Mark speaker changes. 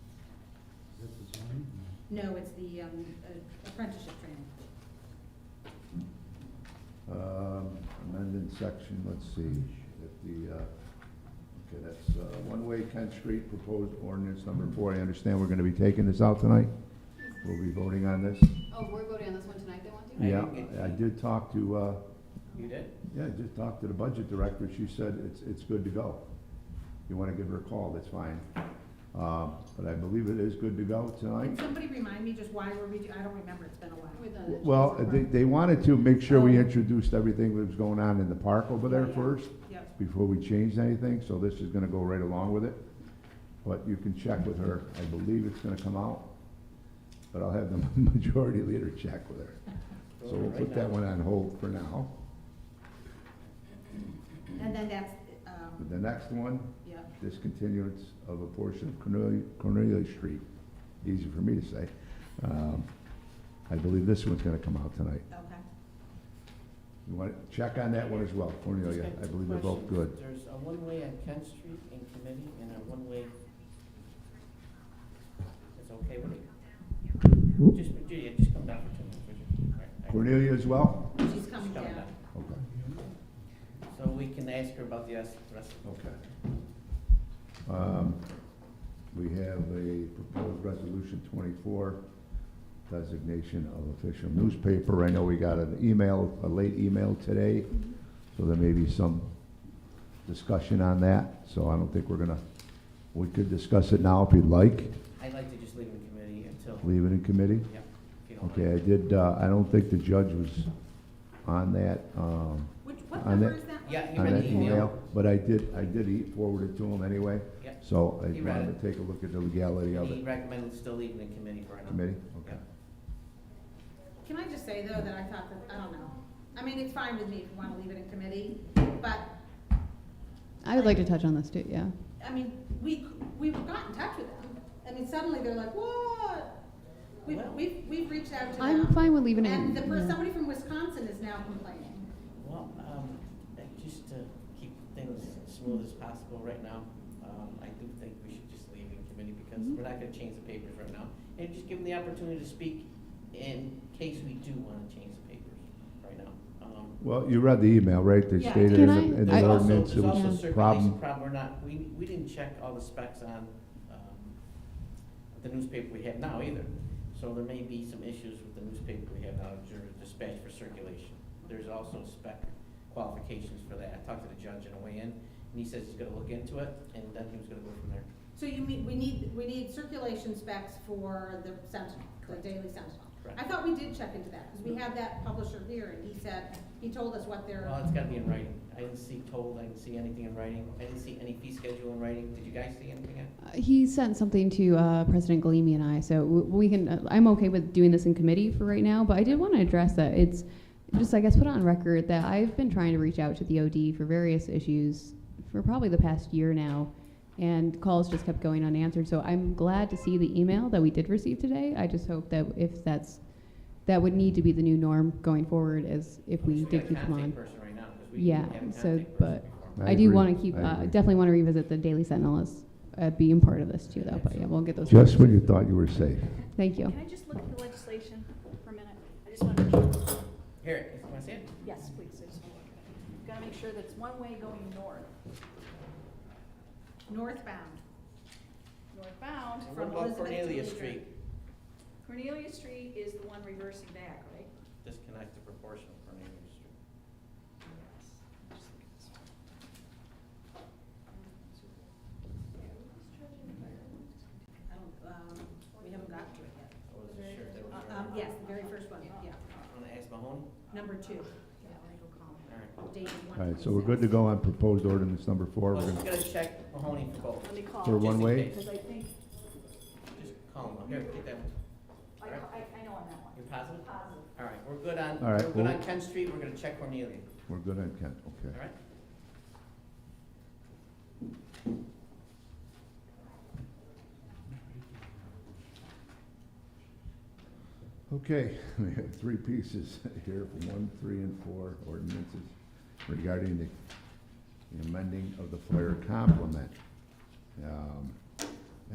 Speaker 1: No, it's the um, uh, apprenticeship training.
Speaker 2: Um, Amended section, let's see, if the, uh, okay, that's uh, one-way Kent Street proposed ordinance number four. I understand we're gonna be taking this out tonight. We'll be voting on this.
Speaker 3: Oh, we're voting on this one tonight, they want to?
Speaker 2: Yeah, I did talk to, uh,
Speaker 4: You did?
Speaker 2: yeah, I did talk to the budget director. She said it's, it's good to go. You wanna give her a call, that's fine. Uh, But I believe it is good to go
Speaker 1: Can
Speaker 2: tonight.
Speaker 1: somebody remind me just why we're redo, I don't remember, it's been a while.
Speaker 3: We've done it.
Speaker 2: Well, they, they wanted to make sure we introduced everything that was going on in the park over there first.
Speaker 1: Yep,
Speaker 2: before we changed anything, so this is gonna go right along with it. But you can check with her, I believe it's gonna come out, but I'll have the majority leader check with her. So we'll put that one on hold for now.
Speaker 1: and then that's, um,
Speaker 2: The next one,
Speaker 1: yep,
Speaker 2: discontinuance of a portion of Cornelia, Cornelia Street, easy for me to say. Um, I believe this one's gonna come out tonight.
Speaker 1: okay.
Speaker 2: You wanna check on that one as well, Cornelia, I believe they're both good.
Speaker 4: There's a one-way on Kent Street in committee and a one-way. It's okay with you? Just, Judy, just come down for two minutes, would you? All right, all right.
Speaker 2: Cornelia as well?
Speaker 1: She's coming
Speaker 4: Coming
Speaker 1: down.
Speaker 2: Okay,
Speaker 4: So we can ask her about the rest the rest of
Speaker 2: Okay. Um, We have a proposed resolution twenty-four, designation of official newspaper. I know we got an email, a late email today, so there may be some discussion on that. So I don't think we're gonna, we could discuss it now if you'd like,
Speaker 4: I'd like to just leave it in committee until,
Speaker 2: leave it in committee.
Speaker 4: yeah. if you don't mind.
Speaker 2: Okay, I did, uh, I don't think the judge was on that, um,
Speaker 1: Which, what
Speaker 2: On
Speaker 1: number
Speaker 2: that-
Speaker 1: is that one?
Speaker 4: Yeah, you
Speaker 2: on
Speaker 4: read
Speaker 2: that
Speaker 4: the email?
Speaker 2: email, but I did, I did e- forward it to him anyway.
Speaker 4: Yeah.
Speaker 2: So I
Speaker 4: You read
Speaker 2: wanted to take a look at the legality of
Speaker 4: He
Speaker 2: it.
Speaker 4: recommended still leaving the committee for another.
Speaker 2: Committee? Okay.
Speaker 1: Can I just say though that I thought that, I don't know. I mean, it's fine with me if you wanna leave it in committee, but,
Speaker 3: I would like to touch on this too, yeah.
Speaker 1: I mean, we, we got in touch with them. I mean, suddenly they're like, what? We've,
Speaker 4: Well-
Speaker 1: we've, we've reached out to them.
Speaker 3: I'm fine with leaving it.
Speaker 1: And the, per-
Speaker 3: yeah.
Speaker 1: somebody from Wisconsin is now complaining.
Speaker 4: Well, um, uh, just to keep things smooth as possible right now, um, I do think we should just leave in committee because we're not gonna change the papers right now. And just give them the opportunity to speak in case we do wanna change the papers right now. Um,
Speaker 2: Well, you read the email, right? They
Speaker 1: Yeah.
Speaker 2: stated in
Speaker 3: Can
Speaker 2: the-
Speaker 3: I-
Speaker 2: in
Speaker 4: There's
Speaker 2: the
Speaker 4: also-
Speaker 2: ordinance it
Speaker 4: There's also
Speaker 2: was a
Speaker 4: circulation
Speaker 2: problem.
Speaker 4: problem, we're not, we, we didn't check all the specs on, um, the newspaper we have now either. So there may be some issues with the newspaper we have now, jur- dispatch for circulation. There's also spec qualifications for that. I talked to the judge on the way in, and he says he's gonna look into it, and then he was gonna go from there.
Speaker 1: So you mean, we need, we need circulation specs for the Sentinel, the
Speaker 4: Correct.
Speaker 1: Daily Sentinel?
Speaker 4: Correct.
Speaker 1: I thought we did check into that, because we had that publisher here, and he said, he told us what their,
Speaker 4: Well, it's gotta be in writing. I didn't see told, I didn't see anything in writing. I didn't see any fee schedule in writing. Did you guys see anything? in-
Speaker 3: Uh, He sent something to uh, President Galimi and I, so w- we can, uh, I'm okay with doing this in committee for right now, but I did want to address that. It's just, I guess, put on record that I've been trying to reach out to the OD for various issues for probably the past year now, and calls just kept going unanswered. So I'm glad to see the email that we did receive today. I just hope that if that's, that would need to be the new norm going forward as if we
Speaker 4: Just
Speaker 3: did keep
Speaker 4: got a
Speaker 3: them on.
Speaker 4: contact person right now, 'cause we
Speaker 3: Yeah,
Speaker 4: didn't have a
Speaker 3: so,
Speaker 4: contact person
Speaker 3: but-
Speaker 4: before.
Speaker 3: I do
Speaker 2: agree.
Speaker 3: want to keep,
Speaker 2: I
Speaker 3: uh,
Speaker 2: agree.
Speaker 3: definitely want to revisit the Daily Sentinel as uh, being part of this too, though. But yeah, we'll get those.
Speaker 2: Just when you thought you were safe.
Speaker 3: Thank you.
Speaker 5: Can I just look at the legislation for a minute? I just want to make sure,
Speaker 4: Here, you wanna see it?
Speaker 5: yes, please, I just want to look at it. Got to make sure that it's one way going north,
Speaker 1: northbound.
Speaker 5: northbound
Speaker 4: And What
Speaker 5: from
Speaker 4: about
Speaker 5: Elizabeth to
Speaker 4: Cornelia
Speaker 5: Leader.
Speaker 4: Street?
Speaker 5: Cornelia Street is the one reversing back, right?
Speaker 4: Disconnect the proportion of Cornelia Street.
Speaker 1: I don't, um, we haven't gotten to it yet.
Speaker 4: I wasn't sure if that was.
Speaker 1: Uh,
Speaker 4: right.
Speaker 1: Um, yes, the very first one, yeah,
Speaker 4: Want to ask Mahoney?
Speaker 1: number two,
Speaker 4: All right.
Speaker 1: dated one.
Speaker 2: All right, so we're good to go on proposed ordinance number four. We're
Speaker 4: Well, just
Speaker 2: gonna,
Speaker 4: gonna check Mahoney for both.
Speaker 5: Let me
Speaker 2: For
Speaker 5: call,
Speaker 2: one
Speaker 4: Just in
Speaker 2: way?
Speaker 4: case.
Speaker 5: because I think,
Speaker 4: Just call him. Here, take that one.
Speaker 5: I, I, I know on that one.
Speaker 4: You're positive?
Speaker 5: Positive.
Speaker 4: All right, we're good on,
Speaker 2: All right,
Speaker 4: we're good
Speaker 2: well-
Speaker 4: on Kent Street. We're gonna check Cornelia.
Speaker 2: we're good on Kent, okay.
Speaker 4: All right?
Speaker 2: Okay, we have three pieces here, one, three, and four ordinances regarding the the amending of the fire complement. Um,